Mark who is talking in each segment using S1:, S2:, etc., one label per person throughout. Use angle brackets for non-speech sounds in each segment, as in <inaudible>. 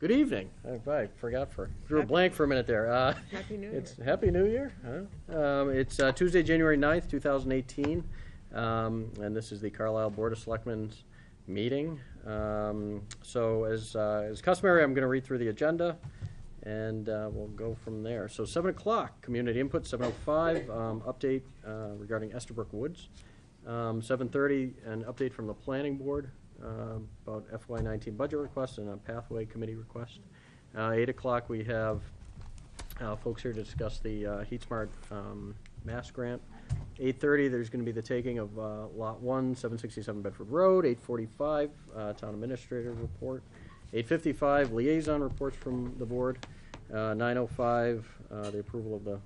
S1: Good evening. I, I forgot for, drew a blank for a minute there. Uh,
S2: Happy New Year.
S1: It's Happy New Year. huh? Um, It's uh, Tuesday, January 9th, 2018, um, and this is the Carlisle Board of Selectmen's meeting. Um, So as uh, as customary, I'm going to read through the agenda, and uh, we'll go from there. So 7 o'clock, community input, 7:05, um, update uh, regarding Estabrook Woods. Um, 7:30, an update from the planning board um, about FY19 budget request and a pathway committee request. Uh, 8 o'clock, we have uh, folks here to discuss the uh, Heat Smart um, Mass Grant. 8:30, there's going to be the taking of uh, Lot 1, 767 Bedford Road. 8:45, uh, Town Administrator Report. 8:55, Liaison Reports from the Board. Uh, 9:05, uh, the approval of the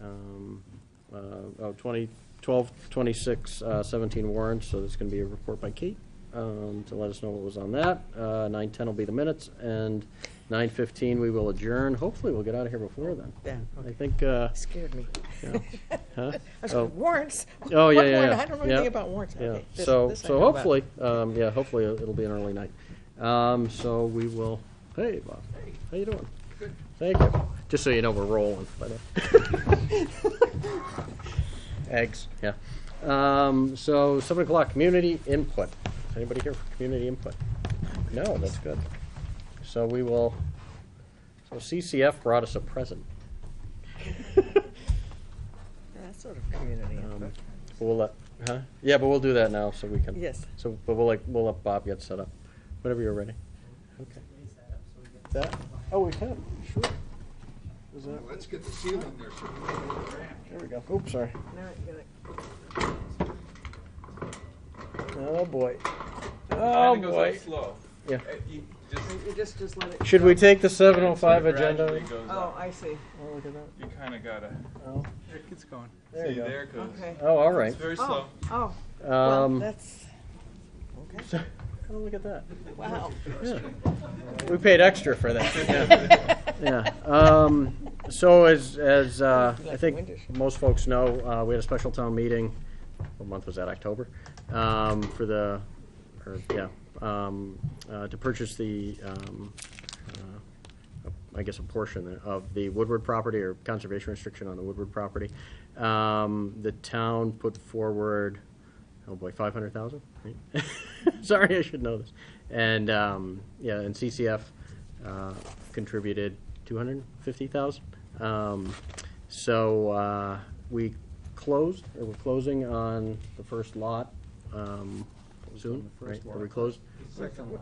S1: um, uh, oh, 20, 12, 26, uh, 17 warrants, so there's going to be a report by Kate um, to let us know what was on that. Uh, 9:10 will be the minutes, and 9:15 we will adjourn. Hopefully, we'll get out of here before then.
S2: Then,
S1: I
S2: okay.
S1: think, uh,
S2: Scared me.
S1: yeah. Huh?
S2: I was
S1: Oh.
S2: like, warrants?
S1: Oh,
S2: <laughs> What
S1: yeah, yeah,
S2: warrant?
S1: yeah.
S2: I don't know
S1: Yeah.
S2: anything about warrants.
S1: Yeah,
S2: Okay, this-
S1: so,
S2: this I
S1: so
S2: know about.
S1: hopefully, um, yeah, hopefully it'll be an early night. Um, so we will, hey, Bob, how you doing? Good. Thank you. Just so you know, we're rolling. by the way. <laughs> Eggs, yeah. Um, so seven o'clock, community input. Is anybody here for community input? No, that's good. So we will, so CCF brought us a present.
S2: Yeah, That's sort of community
S1: Um,
S2: input.
S1: We'll let, huh? Yeah, but we'll do that now so we can.
S2: Yes.
S1: So, but we'll like, we'll let Bob get set up, whenever you're ready. Okay. That, oh, we can, sure. Is that,
S3: Let's get the
S1: Oh,
S3: seal in there. so we can get the grant.
S1: there we go. Oops, sorry.
S2: Now you're gonna-
S1: Oh, boy.
S4: Kinda
S1: Oh,
S4: goes up
S1: boy.
S4: slow.
S1: Yeah.
S4: Uh, you just-
S2: You just, just let it.
S1: Should
S2: go.
S1: we take the seven oh five
S4: it
S1: agenda?
S4: gradually goes
S2: Oh,
S4: up.
S2: I see.
S1: Oh, look at that.
S4: You kinda gotta,
S1: Oh,
S4: it gets going.
S1: There you
S4: See,
S1: go.
S4: there it goes.
S2: Okay.
S1: Oh, all right.
S4: It's very
S2: Oh,
S4: slow.
S2: oh, well,
S1: Um,
S2: that's, okay,
S1: so- <laughs> oh, look at that.
S2: wow.
S1: Yeah. We paid extra for that. Yeah. Um, so as, as, uh, I think most folks know, uh, we had a special town meeting, what month was that, October? Um, for the, or, yeah, um, uh, to purchase the, um, uh, I guess a portion of the Woodward property or conservation restriction on the Woodward property. Um, the town put forward, oh boy, five hundred thousand? <laughs> Sorry, I should know this. And, um, yeah, and CCF, uh, contributed two hundred fifty thousand. Um, so, uh, we closed, or we're closing on the first lot, um, soon, right? Are we closed?
S3: Second one.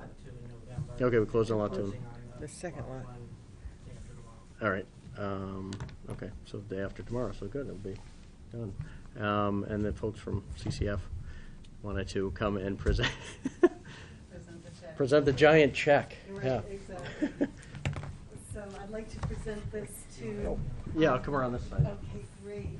S1: Okay, we closed on lot two.
S2: The second lot.
S1: All right, um, okay, so the day after tomorrow, so good, it'll be done. Um, and the folks from CCF wanted to come and present, <laughs>
S5: Present the check.
S1: present the giant check, yeah.
S5: Right, exactly. So I'd like to present this to.
S1: <laughs> Yeah, I'll come around this side.
S5: Okay, great.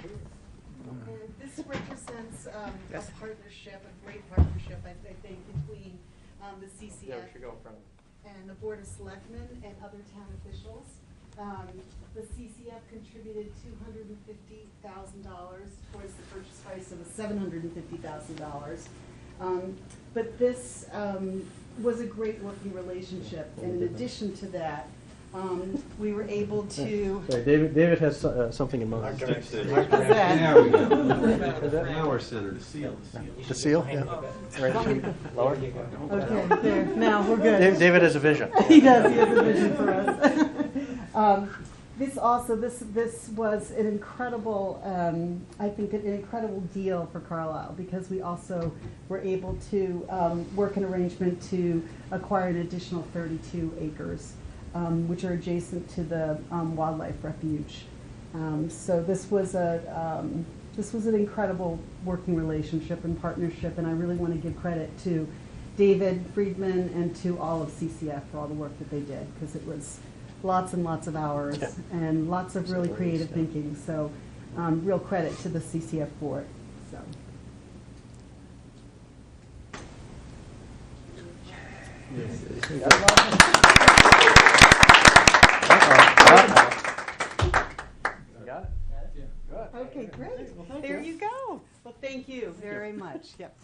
S5: And This represents um, a
S2: Yes.
S5: partnership, a great partnership, I I think, between um, the CCF and the Board of Selectmen and other town officials. Um, The CCF contributed two hundred and fifty thousand dollars towards the purchase price of seven hundred and fifty thousand dollars. Um, But this um, was a great working relationship, and in addition to that, um, we were able
S1: <laughs>
S5: to.
S1: So David, David has so- uh, something in mind.
S2: uh,
S5: that?
S3: Now we go. Now we're centered.
S1: The seal, yeah. Right. Lower.
S5: Okay, there, now, we're good.
S1: Dav- David has a vision.
S5: He does, he has a vision for us. <laughs> Um, This also, this, this was an incredible, um, I think an incredible deal for Carlisle because we also were able to um, work an arrangement to acquire an additional 32 acres, um, which are adjacent to the um, wildlife refuge. Um, So this was a, um, this was an incredible working relationship and partnership, and I really want to give credit to David Friedman and to all of CCF for all the work that they did, because it was lots and lots of hours and lots of really creative thinking. So um, real credit to the CCF board, so.
S1: Got it?
S5: Okay, great.
S2: There you go.
S5: Well, thank you very much. Yep.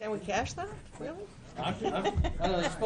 S2: Can we cash that, really?